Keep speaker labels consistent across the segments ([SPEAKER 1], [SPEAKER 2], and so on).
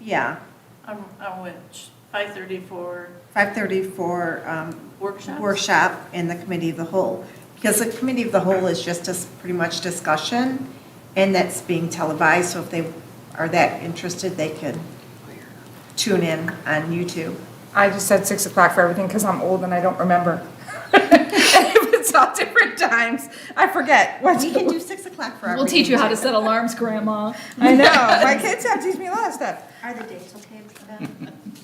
[SPEAKER 1] Yeah,
[SPEAKER 2] On, on which, five thirty for
[SPEAKER 1] 5:30 for um,
[SPEAKER 2] workshops?
[SPEAKER 1] workshop and the committee of the whole. Because the committee of the whole is just dis- pretty much discussion, and that's being televised, so if they are that interested, they can tune in on YouTube.
[SPEAKER 3] I just said six o'clock for everything because I'm old and I don't remember. And If it's all different times, I forget. what
[SPEAKER 1] We can do 6 o'clock for
[SPEAKER 4] We'll
[SPEAKER 1] everything.
[SPEAKER 4] teach you how to set alarms, Grandma.
[SPEAKER 3] I know, my kids have teach me a lot of stuff.
[SPEAKER 1] Are the dates okay for them? Oh.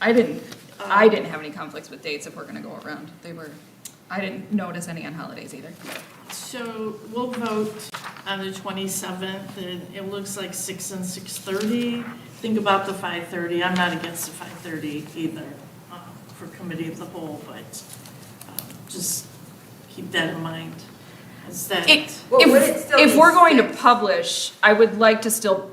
[SPEAKER 4] I didn't, I didn't have any conflicts with dates if we're gonna go around. They were, I didn't notice any on holidays either.
[SPEAKER 2] So we'll vote on the twenty-seventh, and it looks like six and six-thirty. Think about the five-thirty, I'm not against the five-thirty either, um, for committee of the whole, but um, just keep that in mind. Is that,
[SPEAKER 4] It-
[SPEAKER 5] Well, would it
[SPEAKER 4] If,
[SPEAKER 5] still
[SPEAKER 4] if
[SPEAKER 5] be
[SPEAKER 4] we're going to
[SPEAKER 5] six?
[SPEAKER 4] publish, I would like to still,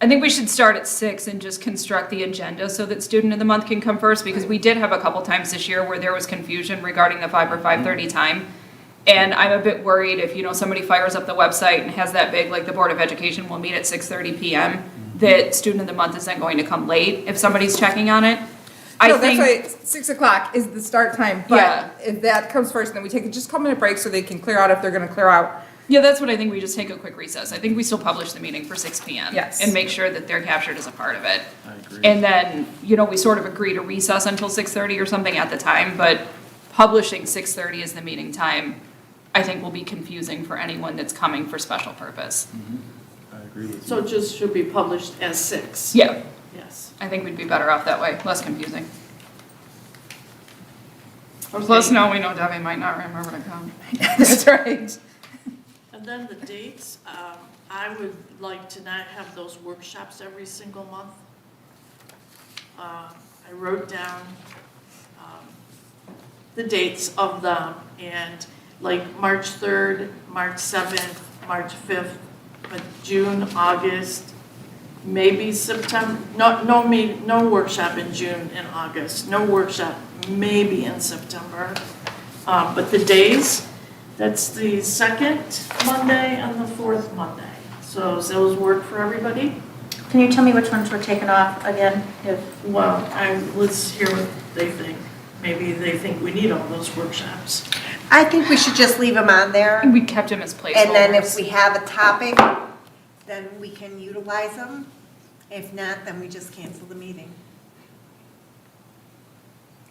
[SPEAKER 4] I think we should start at six and just construct the agenda so that student of the month can come first, because we did have a couple times this year where there was confusion regarding the five or five-thirty time. And I'm a bit worried if, you know, somebody fires up the website and has that big, like, the Board of Education will meet at six-thirty PM, that student of the month isn't going to come late if somebody's checking on it. I
[SPEAKER 3] No, that's why
[SPEAKER 4] think,
[SPEAKER 3] it's- six o'clock is the start time,
[SPEAKER 4] Yeah.
[SPEAKER 3] but if that comes first, then we take a just couple minute break so they can clear out if they're gonna clear out.
[SPEAKER 4] yeah, that's what I think, we just take a quick recess. I think we still publish the meeting for six PM.
[SPEAKER 3] Yes.
[SPEAKER 4] And make sure that they're captured as a part of it.
[SPEAKER 6] I agree.
[SPEAKER 4] And then, you know, we sort of agree to recess until six-thirty or something at the time, but publishing six-thirty as the meeting time, I think will be confusing for anyone that's coming for special purpose.
[SPEAKER 6] I agree with
[SPEAKER 2] so
[SPEAKER 6] you.
[SPEAKER 2] it just should be published as six?
[SPEAKER 4] Yeah,
[SPEAKER 2] Yes.
[SPEAKER 4] I think we'd be better off that way, less confusing. Plus,
[SPEAKER 2] Okay.
[SPEAKER 4] now we know Debbie might not remember to come.
[SPEAKER 3] That's right.
[SPEAKER 2] And then the dates, um, I would like to not have those workshops every single month. Uh, I wrote down um, the dates of them, and like March 3rd, March 7th, March 5th, but June, August, maybe September, no, no, me- no workshop in June and August, no workshop maybe in September. Uh, But the days, that's the second Monday and the fourth Monday. So does those work for everybody?
[SPEAKER 7] Can you tell me which ones were taken off again? If
[SPEAKER 2] Well, I, let's hear what they think. Maybe they think we need all those workshops.
[SPEAKER 1] I think we should just leave them on there.
[SPEAKER 4] And we kept him as placeholders.
[SPEAKER 1] And then if we have a topic, then we can utilize them. If not, then we just cancel the meeting.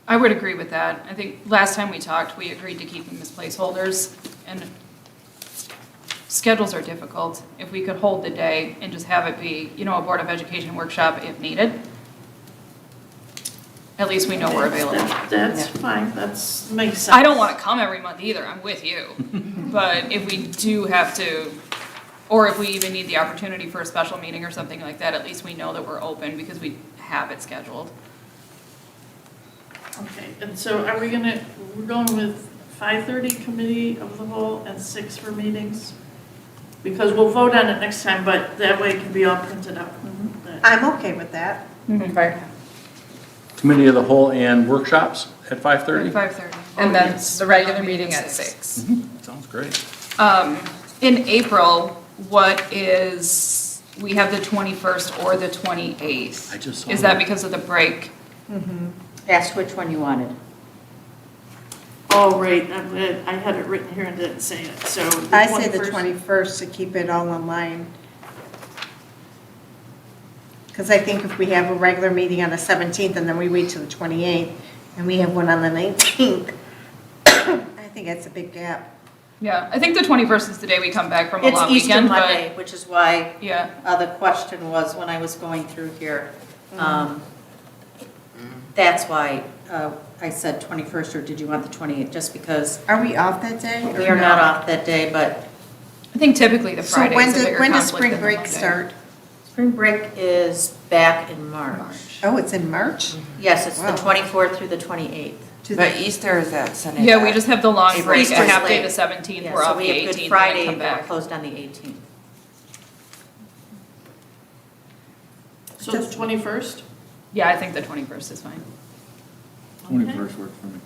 [SPEAKER 4] I would agree with that. I think last time we talked, we agreed to keep them as placeholders, and schedules are difficult. If we could hold the day and just have it be, you know, a Board of Education workshop if needed, at least we know we're available.
[SPEAKER 2] That- That's fine, that's, makes sense.
[SPEAKER 4] I don't want to come every month either, I'm with you. But if we do have to, or if we even need the opportunity for a special meeting or something like that, at least we know that we're open because we have it scheduled.
[SPEAKER 2] Okay, and so are we gonna, we're going with five thirty committee of the whole and six for meetings? Because we'll vote on it next time, but that way it can be all printed out.
[SPEAKER 4] Mm-hmm.
[SPEAKER 2] That-
[SPEAKER 1] I'm okay with that.
[SPEAKER 3] Okay.
[SPEAKER 6] Committee of the whole and workshops at 5:30?
[SPEAKER 4] Five-thirty.
[SPEAKER 3] And then the regular meeting at six.
[SPEAKER 6] Sounds great.
[SPEAKER 4] Um, in April, what is, we have the 21st or the 28th.
[SPEAKER 6] I just saw
[SPEAKER 4] Is that
[SPEAKER 6] that.
[SPEAKER 4] because of the break?
[SPEAKER 5] Asked which one you wanted.
[SPEAKER 2] Oh, right, I I had it written here and didn't say it, so. the
[SPEAKER 1] I say the
[SPEAKER 2] 21st
[SPEAKER 1] 21st to keep it all in line. Because I think if we have a regular meeting on the 17th and then we wait till the 28th and we have one on the 19th, I think that's a big gap.
[SPEAKER 4] Yeah, I think the 21st is the day we come back from a
[SPEAKER 5] It's
[SPEAKER 4] long
[SPEAKER 5] Easter
[SPEAKER 4] weekend, but.
[SPEAKER 5] Monday, which is why
[SPEAKER 4] Yeah,
[SPEAKER 5] uh, the question was when I was going through here. um, That's why uh, I said 21st, or did you want the 28th? Just because
[SPEAKER 1] Are we off that day? or
[SPEAKER 5] we are not
[SPEAKER 1] no?
[SPEAKER 5] off that day, but
[SPEAKER 4] I think typically the
[SPEAKER 1] So
[SPEAKER 4] Friday
[SPEAKER 1] when
[SPEAKER 4] is a
[SPEAKER 1] does,
[SPEAKER 4] bigger
[SPEAKER 1] when does
[SPEAKER 4] conflict
[SPEAKER 1] spring
[SPEAKER 4] than the
[SPEAKER 1] break
[SPEAKER 4] Monday.
[SPEAKER 1] start?
[SPEAKER 5] spring break is back in
[SPEAKER 4] March.
[SPEAKER 5] March.
[SPEAKER 1] Oh, it's in March?
[SPEAKER 5] Yes, it's
[SPEAKER 1] Wow.
[SPEAKER 5] the 24th through the 28th.
[SPEAKER 1] To the-
[SPEAKER 8] But Easter is that Sunday.
[SPEAKER 4] Yeah, we just have the long
[SPEAKER 5] April.
[SPEAKER 4] break, a
[SPEAKER 5] Easter's
[SPEAKER 4] half day
[SPEAKER 5] late.
[SPEAKER 4] the 17th,
[SPEAKER 5] Yeah,
[SPEAKER 4] we're
[SPEAKER 5] so
[SPEAKER 4] off the
[SPEAKER 5] we have
[SPEAKER 4] 18th,
[SPEAKER 5] Good
[SPEAKER 4] and
[SPEAKER 5] Friday,
[SPEAKER 4] then
[SPEAKER 5] but
[SPEAKER 4] come
[SPEAKER 5] we're
[SPEAKER 4] back.
[SPEAKER 5] closed on the 18th.
[SPEAKER 2] So the twenty-first?
[SPEAKER 4] Yeah, I think the 21st is fine.
[SPEAKER 6] worked for me.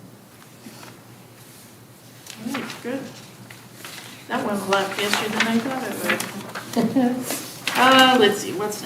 [SPEAKER 2] All right, good. That went a lot faster than I thought it would. Uh, let's see, what's